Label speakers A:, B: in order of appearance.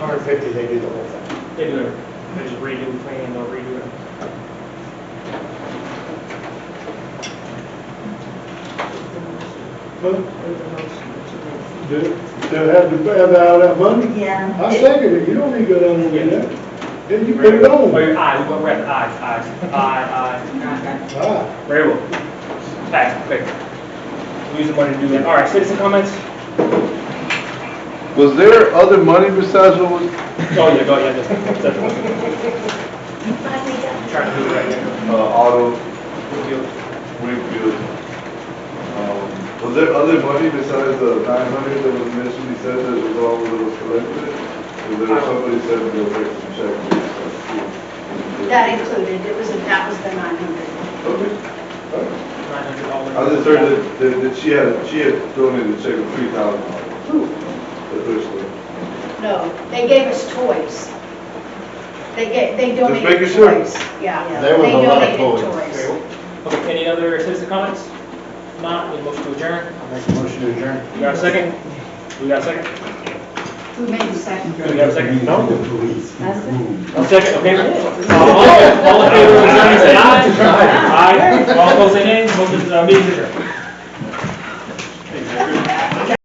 A: Hundred fifty, they do the whole thing.
B: They do it, they just redo the plan, they'll redo it.
C: Move the motion
D: They, they have to pay out all that money?
C: Yeah.
D: I second it, you don't need to go down there with that. Then you put it on.
B: Wait, aye, we're at aye, aye, aye,
D: Ah,
B: aye. Very well. Fast, quick. Use the money to do that. All right, citizen comments?
E: Was there other money besides what was,
B: Go yeah, go yeah. just- just- Try to do it right now.
E: uh, auto
B: Good deal.
E: refueling? Um, Was there other money besides the nine hundred that was mentioned, he said that was all that was collected? Was there somebody said they'll make some checks?
F: That included, it was, that was the 900.
E: Okay.
B: $900.
E: I just heard that, that, that she had, she had donated a check of three thousand dollars. The first one.
F: No, they gave us toys. They gave, they
E: making
F: donated
E: sure.
F: toys. Yeah.
A: There was
F: They
A: a lot of
F: donated
A: toys.
B: Very well. Okay, any other citizen comments? Not, we motion to adjourn.
A: I make a motion to adjourn.
B: We got a second? We got a second?
F: Who made the second?
B: We got a second?
A: Not the police.
B: A second, okay. Uh, All all in favor, of adjourning, say aye. Aye, all opposed, say nay. Motion, uh, meeting adjourned.